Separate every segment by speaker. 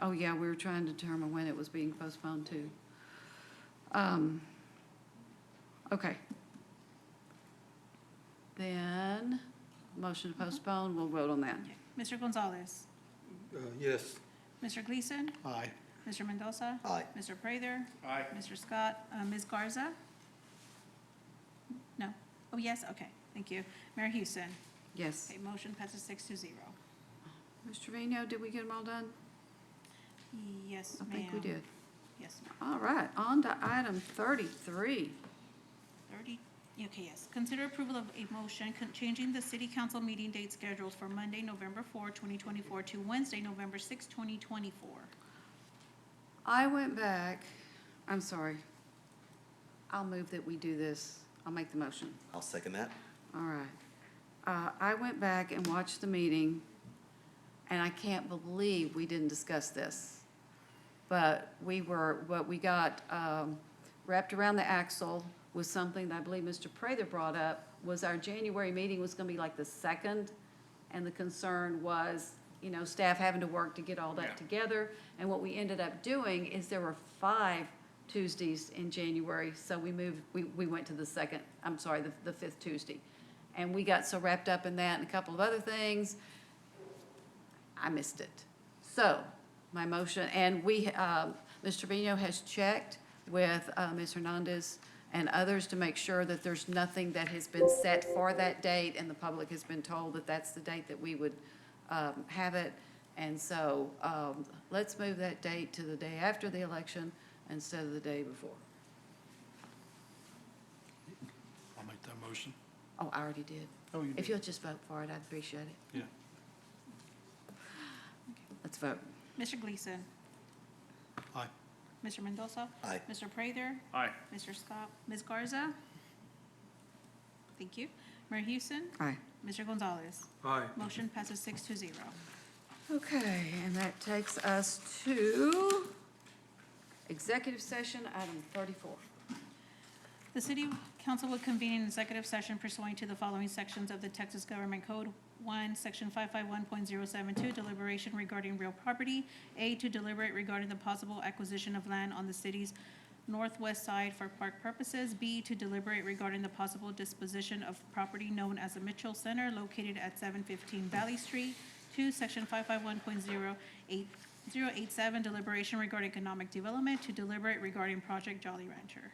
Speaker 1: oh yeah, we were trying to determine when it was being postponed to. Um, Okay. Then, motion to postpone, we'll vote on that.
Speaker 2: Mr. Gonzalez,
Speaker 3: Uh, Yes.
Speaker 2: Mr. Gleason,
Speaker 3: Aye.
Speaker 2: Mr. Mendoza,
Speaker 3: Aye.
Speaker 2: Mr. Prather,
Speaker 4: Aye.
Speaker 2: Mr. Scott, uh, Ms. Garza? No? Oh, yes, okay, thank you. Mayor Houston?
Speaker 1: Yes.
Speaker 2: Okay, motion passes six to zero.
Speaker 1: Mr. Trevino, did we get them all done?
Speaker 2: Yes,
Speaker 1: I
Speaker 2: ma'am.
Speaker 1: think we did.
Speaker 2: Yes, ma'am.
Speaker 1: All right, on to item thirty-three.
Speaker 2: Thirty, okay, yes. Consider approval of a motion con- changing the city council meeting date schedules for Monday, November 4, 2024, to Wednesday, November 6, 2024.
Speaker 1: I went back, I'm sorry. I'll move that we do this. I'll make the motion.
Speaker 5: I'll second that.
Speaker 1: All right. Uh, I went back and watched the meeting, and I can't believe we didn't discuss this. But we were, what we got um, wrapped around the axle was something that I believe Mr. Prather brought up, was our January meeting was going to be like the second, and the concern was, you know, staff having to work to get all
Speaker 4: Yeah.
Speaker 1: that together. And what we ended up doing is there were five Tuesdays in January, so we moved, we, we went to the second, I'm sorry, the, the fifth Tuesday. And we got so wrapped up in that and a couple of other things, I missed it. So, my motion, and we, uh, Mr. Trevino has checked with uh, Ms. Hernandez and others to make sure that there's nothing that has been set for that date, and the public has been told that that's the date that we would um, have it. And so, um, let's move that date to the day after the election instead of the day before.
Speaker 3: I'll make that motion.
Speaker 1: Oh, I already did.
Speaker 3: Oh, you
Speaker 1: If you'll just vote for it, I'd appreciate it.
Speaker 3: Yeah.
Speaker 1: Let's vote.
Speaker 2: Mr. Gleason?
Speaker 3: Aye.
Speaker 2: Mr. Mendoza?
Speaker 5: Aye.
Speaker 2: Mr. Prather?
Speaker 4: Aye.
Speaker 2: Mr. Scott, Ms. Garza? Thank you. Mayor Houston,
Speaker 1: Aye.
Speaker 2: Mr. Gonzalez.
Speaker 3: Aye.
Speaker 2: Motion passes six to zero.
Speaker 1: Okay, and that takes us to executive session, item thirty-four.
Speaker 2: The city council will convene an executive session pursuant to the following sections of the Texas Government Code. One, section five-five-one-point-zero-seven-two, deliberation regarding real property. A, to deliberate regarding the possible acquisition of land on the city's northwest side for park purposes. B, to deliberate regarding the possible disposition of property known as the Mitchell Center located at seven fifteen Valley Street. Two, section five-five-one-point-zero-eight-zero-eight-seven, deliberation regarding economic development. To deliberate regarding Project Jolly Rancher.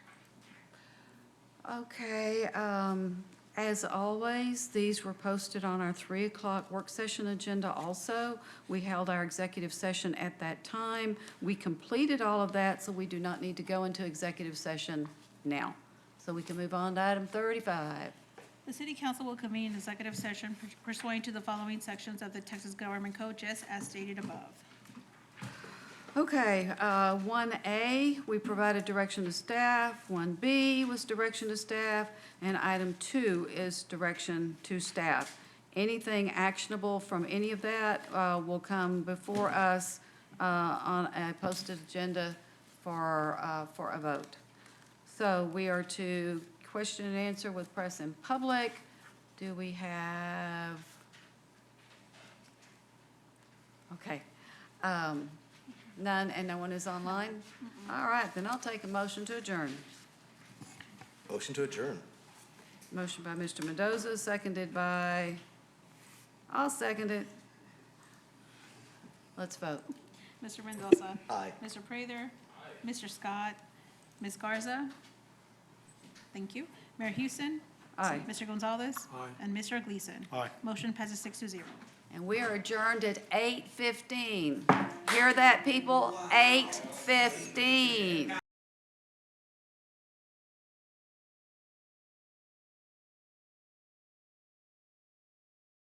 Speaker 1: Okay, um, as always, these were posted on our three o'clock work session agenda also. We held our executive session at that time. We completed all of that, so we do not need to go into executive session now. So we can move on to item thirty-five.
Speaker 2: The city council will convene an executive session pursuant to the following sections of the Texas Government Code, just as stated above.
Speaker 1: Okay, uh, 1A, we provided direction to staff, 1B was direction to staff, and item 2 is direction to staff. Anything actionable from any of that uh, will come before us uh, on a posted agenda for, uh, for a vote. So we are to question and answer with press and public. Do we have? Okay. Um, None, and no one is online? All right, then I'll take a motion to adjourn.
Speaker 5: Motion to adjourn.
Speaker 1: Motion by Mr. Mendoza, seconded by, I'll second it. Let's vote.
Speaker 2: Mr. Mendoza.
Speaker 5: Aye.
Speaker 2: Mr. Prather. Mr. Scott. Ms. Garza. Thank you. Mayor Houston.
Speaker 1: Aye.
Speaker 2: Mr. Gonzalez.
Speaker 3: Aye.
Speaker 2: And Mr. Gleason.
Speaker 3: Aye.
Speaker 2: Motion passes six to zero.
Speaker 1: And we are adjourned at 8:15. Hear that, people? 8:15.